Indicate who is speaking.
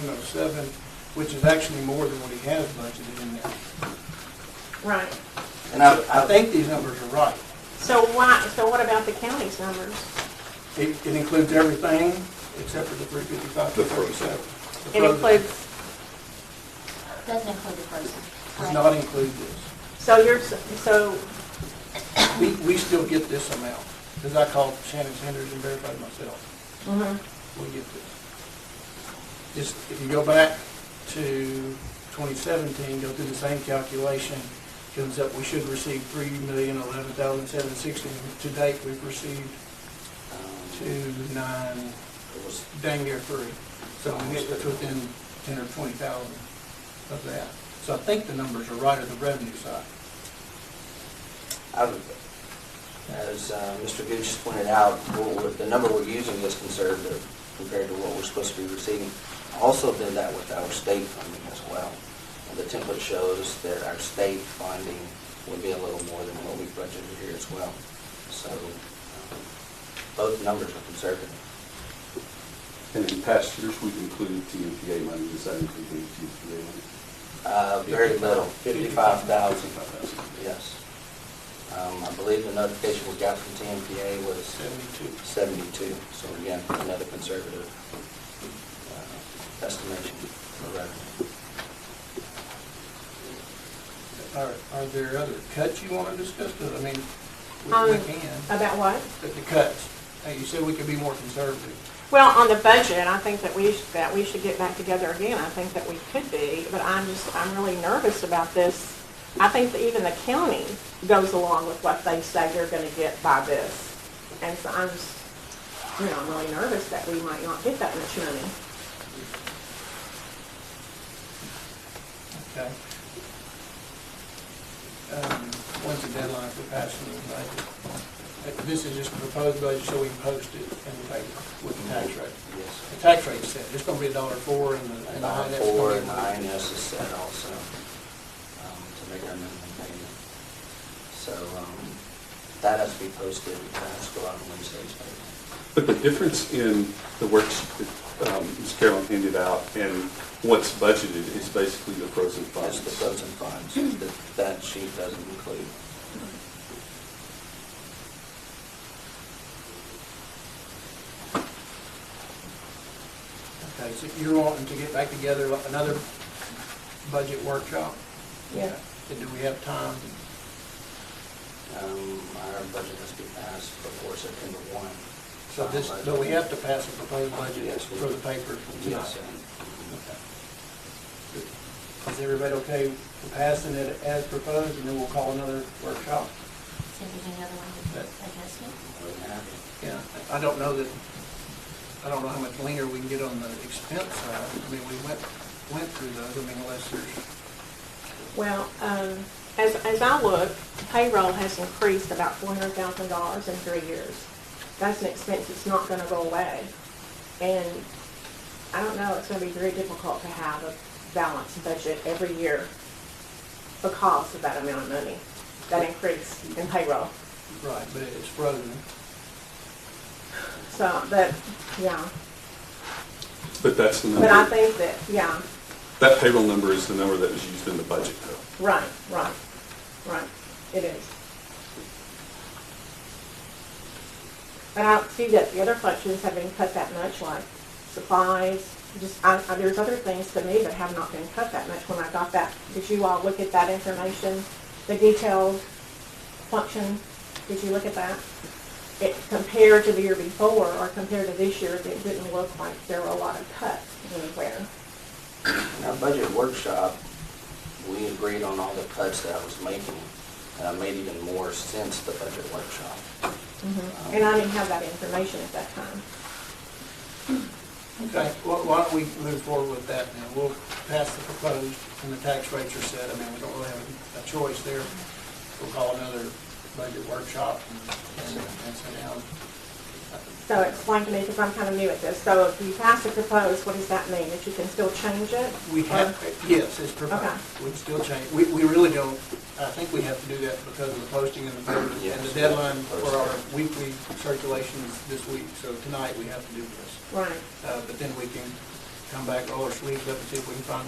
Speaker 1: seven oh seven, which is actually more than what he has budgeted in there.
Speaker 2: Right.
Speaker 3: And I,
Speaker 1: I think these numbers are right.
Speaker 2: So why, so what about the county's numbers?
Speaker 1: It, it includes everything except for the three fifty-five, two
Speaker 4: The frozen.
Speaker 1: thirty-seven.
Speaker 2: It includes,
Speaker 5: Doesn't include the frozen.
Speaker 1: Does
Speaker 5: right?
Speaker 1: not include this.
Speaker 2: so you're, s- so,
Speaker 1: We, we still get this amount, because I called Shannon Sanders and verified myself, we get this. Just, if you go back to twenty seventeen, go through the same calculation, comes up, we should receive three million eleven thousand seven sixty, to date, we've received
Speaker 3: uh,
Speaker 1: two nine, dang near three. So we get that's within ten or twenty thousand of that. So I think the numbers are right at the revenue side.
Speaker 3: I would- as uh, Mr. Gooch pointed out, what we're- the number we're using is conservative compared to what we're supposed to be receiving. I Also did that with our state funding as well. And The template shows that our state funding would be a little more than what we budgeted here as well. So um, both numbers are conservative.
Speaker 4: And in past years, we've included TMPA money, does that include any TMPA money?
Speaker 3: Uh, Very little, 55,000,
Speaker 4: $55,000.
Speaker 3: yes. Um, I believe the notification we got from TMPA was
Speaker 1: Seventy-two.
Speaker 3: 72, so again, another conservative uh, estimation for revenue.
Speaker 1: Are, are there other cuts you want to discuss? 'Cause, I mean, we-
Speaker 2: um,
Speaker 1: we can,
Speaker 2: about what?
Speaker 1: but the cuts, hey, you said we could be more conservative.
Speaker 2: Well, on the budget, I think that we, sh- that we should get back together again. I think that we could be, but I'm just, I'm really nervous about this. I think that even the county goes along with what they say they're gonna get by this. And so I'm just, you know, I'm really nervous that we might not get that much money.
Speaker 1: Okay. Um, When's the deadline for passing the budget? Uh, This is just a proposed budget, so we can post it in the paper with the tax rate.
Speaker 3: Yes.
Speaker 1: The tax rate's set, it's going to be a dollar four and the, and
Speaker 3: And
Speaker 1: the
Speaker 3: I
Speaker 1: INS is
Speaker 3: four
Speaker 1: going
Speaker 3: and
Speaker 1: to
Speaker 3: I N
Speaker 1: be.
Speaker 3: S is set also um, to make our minimum payment. So um, that has to be posted, that has to go out on Wednesday's paper.
Speaker 4: But the difference in the works that um, Ms. Carolyn handed out and what's budgeted is basically the frozen
Speaker 3: That's
Speaker 4: funds.
Speaker 3: the pros and cons that- that sheet doesn't include.
Speaker 1: Okay, so you're wanting to get back together, like, another budget workshop?
Speaker 2: Yeah.
Speaker 1: And do we have time?
Speaker 3: Um, Our budget has to be passed before September Uh, 1.
Speaker 1: So this, so we have to pass a proposed budget
Speaker 3: Yes.
Speaker 1: for the paper tonight?
Speaker 3: Yes. sir.
Speaker 1: Is everybody okay with passing it as proposed, and then we'll call another workshop?
Speaker 5: So we do another one with
Speaker 1: That-
Speaker 5: adjustment?
Speaker 3: More than happy.
Speaker 1: Yeah. I don't know that, I don't know how much leaner we can get on the expense side. I mean, we went, went through those, I mean, unless there's,
Speaker 2: Well, um, as, as I look, payroll has increased about four hundred thousand dollars in three years. That's an expense that's not gonna go away. And I don't know, it's gonna be very difficult to have a balanced budget every year because of that amount of money, that increase in payroll.
Speaker 1: right, but it's frozen.
Speaker 2: So, but, yeah,
Speaker 4: But that's the
Speaker 2: but I
Speaker 4: number,
Speaker 2: think that, yeah,
Speaker 4: that payroll number is the number that was used in the budget though.
Speaker 2: right, right, right, it is. But I don't see that the other functions have been cut that much, like supplies, just, I, I- there's other things to me that have not been cut that much when I got that. Did you all look at that information, the detailed function, did you look at that? It, compared to the year before, or compared to this year, it didn't look like there were a lot of cuts anywhere.
Speaker 3: In our budget workshop, we agreed on all the cuts that I was making, and I made even more since the budget workshop.
Speaker 2: Mm-hmm. And I didn't have that information at that time.
Speaker 1: Okay, well, why don't we move forward with that now? We'll pass the proposed, and the tax rates are set, I mean, we don't really have a choice there. We'll call another budget workshop and, and and sit down.
Speaker 2: So explain to me, because I'm kind of new at this, so if you pass the proposed, what does that mean? That you can still change it?
Speaker 1: We have, yes, it's provided.
Speaker 2: Okay.
Speaker 1: We'd still change, we, we really don't, I think we have to do that because of the posting and the, and the
Speaker 3: Yes.
Speaker 1: deadline for our weekly circulations this week. So tonight, we have to do this.
Speaker 2: Right,
Speaker 1: Uh, But then we can come back, roll our sleeves up and see if we can find